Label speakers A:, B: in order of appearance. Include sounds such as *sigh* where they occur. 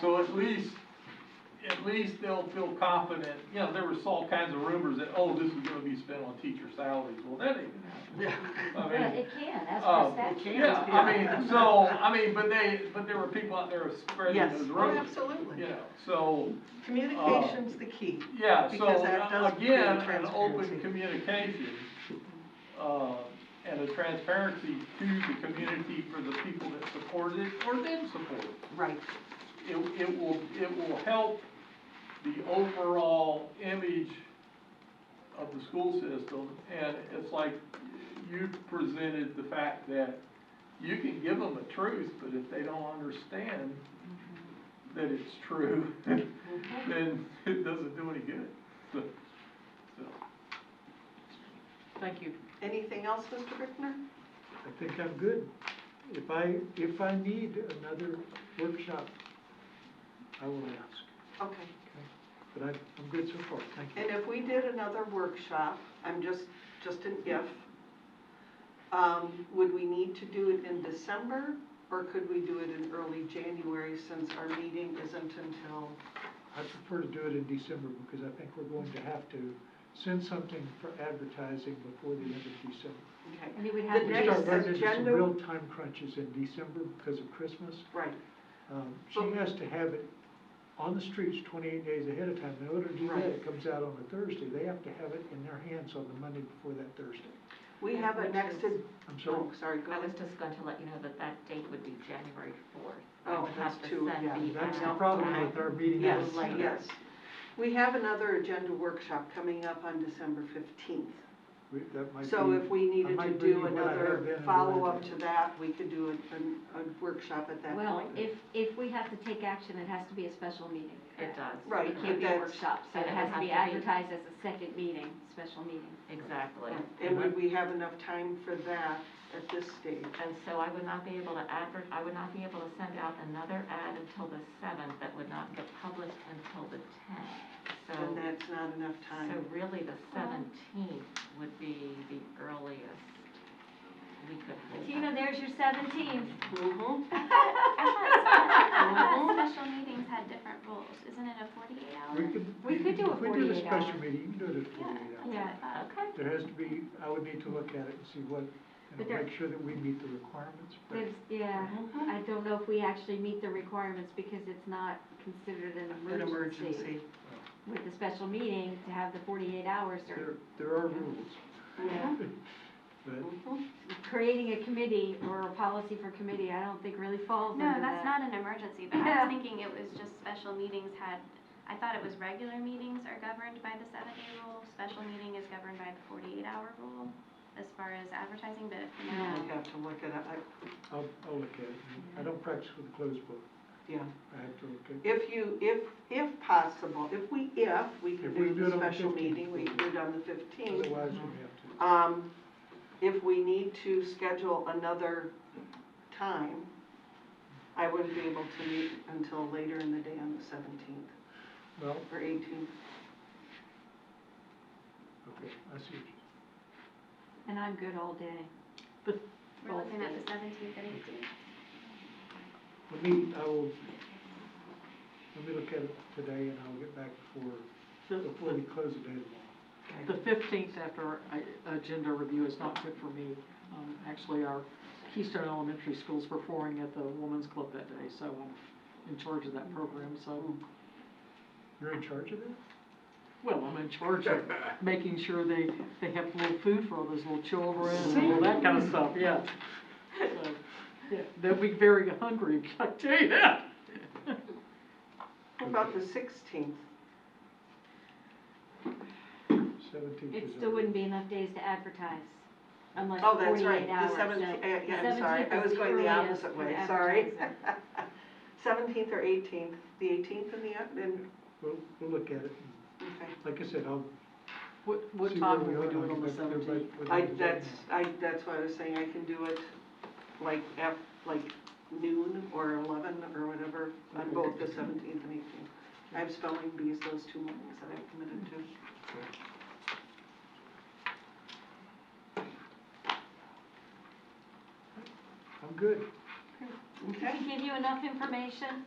A: So at least, at least they'll feel confident, you know, there was all kinds of rumors that, oh, this is gonna be spent on teacher salaries, well, that ain't
B: Yeah.
A: gonna happen. I
C: Yeah,
A: mean,
C: it can, that's
A: uh,
C: what statute.
A: Yeah, I mean, so, I mean, but they, but there were people out there spreading
B: Yes.
A: those
B: Oh,
A: rumors.
B: absolutely.
A: You know, so,
B: Communication's the key.
A: yeah, so,
B: Because that does
A: uh, again,
B: create
A: an open
B: transparency.
A: communication, uh, and a transparency to the community for the people that supported it or didn't support it.
B: Right.
A: it, it will, it will help the overall image of the school system. And it's like you presented the fact that you can give them a truth, but if they don't understand that it's true, *laughs* then it doesn't do any good. So, so,
D: Thank you.
B: Anything else, Mr. Brickner?
E: I think I'm good. If I, if I need another workshop, I will ask,
B: Okay.
E: but I'm, I'm good so far, thank you.
B: And um, if we did another workshop, I'm just, just an if, um, would we need to do it in December? Or could we do it in early January since our meeting isn't until,
E: I prefer to do it in December because I think we're going to have to send something for advertising before the end of December.
B: okay?
C: And it would
B: The
C: have to
E: We
C: be-
B: next
E: start running into some
B: agenda,
E: real time crunches in December because of Christmas.
B: right,
E: Um, She
B: But-
E: has to have it on the streets twenty-eight days ahead of time. In order to do that,
B: Right.
E: it comes out on a Thursday. They have to have it in their hands on the Monday before that Thursday.
B: we have a
D: Which
B: next,
D: is-
B: ag-
E: I'm sorry.
B: oh, sorry, go
D: I was
B: ahead.
D: just going to let you know that that date would be January fourth.
B: Oh, that's too- yeah,
E: That's the problem with our meeting.
B: Yes,
E: on Saturday.
B: yes. We have another agenda workshop coming up on December fifteenth.
E: We- that might
B: So
E: be-
B: if we
E: I
B: needed to
E: might bring you
B: do
E: what I have been
B: another
E: and what I
B: follow-up
E: did.
B: to that, we could do a, an- a workshop at that
C: Well,
B: point.
C: if, if we have to take action, it has to be a special meeting.
D: It does.
B: Right,
C: It
B: but
C: can't be a
B: that's-
C: workshop, so it has to be advertised as a second meeting, special meeting.
D: Exactly.
B: And would we have enough time for that at this stage?
D: And so I would not be able to advert, I would not be able to send out another ad until the seventh, that would not get published until the tenth. So,
B: And that's not enough
D: so
B: time.
D: really the seventeenth would be the earliest we could. hold
C: Tina,
D: that.
C: there's your seventeenth. *laughs*
B: Mhm.
F: I thought spe- I thought Uh, special meetings had different rules, isn't it a forty-eight hour?
E: We could.
C: We could do a
E: If we do a
C: 48
E: special
C: hour.
E: meeting, you can do it at
F: Yeah,
E: forty-eight
F: that's
E: hours.
F: what I
C: Yeah.
F: thought.
D: Okay.
E: There has to be, I would need to look at it and see what, you
C: But
E: know,
C: there-
E: make sure that we meet the requirements. but-
C: There's, yeah, I don't know if we actually meet the requirements because it's not considered an
B: An
C: emergency.
B: emergency.
C: With the special meeting, to have the forty-eight hours or
E: There, there are rules, *laughs*
B: Yeah.
E: but
B: Mhm.
C: creating a committee or a policy for committee, I don't think really falls under
F: No,
C: that.
F: that's not an emergency, but
C: Yeah.
F: I was thinking it was just special meetings had, I thought it was regular meetings are governed by the seven-day rule, special meeting is governed by the forty-eight hour rule as far as advertising, but if you
C: Yeah.
F: know,
B: I'd have to look it up. I-
E: I'll, I'll look at it. I don't practice with a closed book.
B: Yeah.
E: I have to look at it.
B: If you, if, if possible, if we, if we can
E: If we
B: do
E: do
B: the
E: it on the
B: special
E: 15th.
B: meeting, we can do it on the fifteenth.
E: Otherwise, we have to.
B: Um, if we need to schedule another time, I wouldn't be able to meet until later in the day on the seventeenth
E: Well,
B: or eighteenth.
E: okay, I see. what you-
C: And I'm good all day.
F: we're looking at the seventeenth and eighteenth.
E: Let me, I will, let me look at it today and I'll get back before, before we close the day tomorrow.
G: The fifteenth after I- agenda review is not good for me. Um, Actually, our Keystone Elementary School's performing at the Women's Club that day, so I'm in charge of that program, so,
E: You're in charge of it?
G: well, I'm in charge of making sure they, they have little food for all those little children and all that kind of stuff, yeah. So, yeah, They'll be very hungry, *laughs* I tell you that.
B: How about the sixteenth?
E: Seventeenth
C: It
E: is.
C: still wouldn't be enough days to advertise unless
B: Oh, that's
C: forty-eight
B: right,
C: hours.
B: the seventeenth,
C: so
B: yeah, I'm sorry,
C: 17th
B: I
C: is
B: was going the
C: earliest
B: opposite
C: for
B: way, sorry. *laughs*
C: advertising.
B: Seventeenth or eighteenth, the eighteenth and the, oth- and,
E: We'll, we'll look at it.
B: okay.
E: Like I said, I'll.
G: What, what
E: see
G: time
E: where
G: will we
E: are,
G: do
E: and
G: it
E: I'll
G: on the
E: get back to everybody
G: seventeenth?
E: with
B: I,
E: everything.
B: that's, I, that's why I was saying, I can do it like af, like noon or eleven or whatever on both the seventeenth and eighteenth. I have spelling bees those two mornings that I've committed to.
E: I'm good.
B: Okay,
C: Did we give you enough information?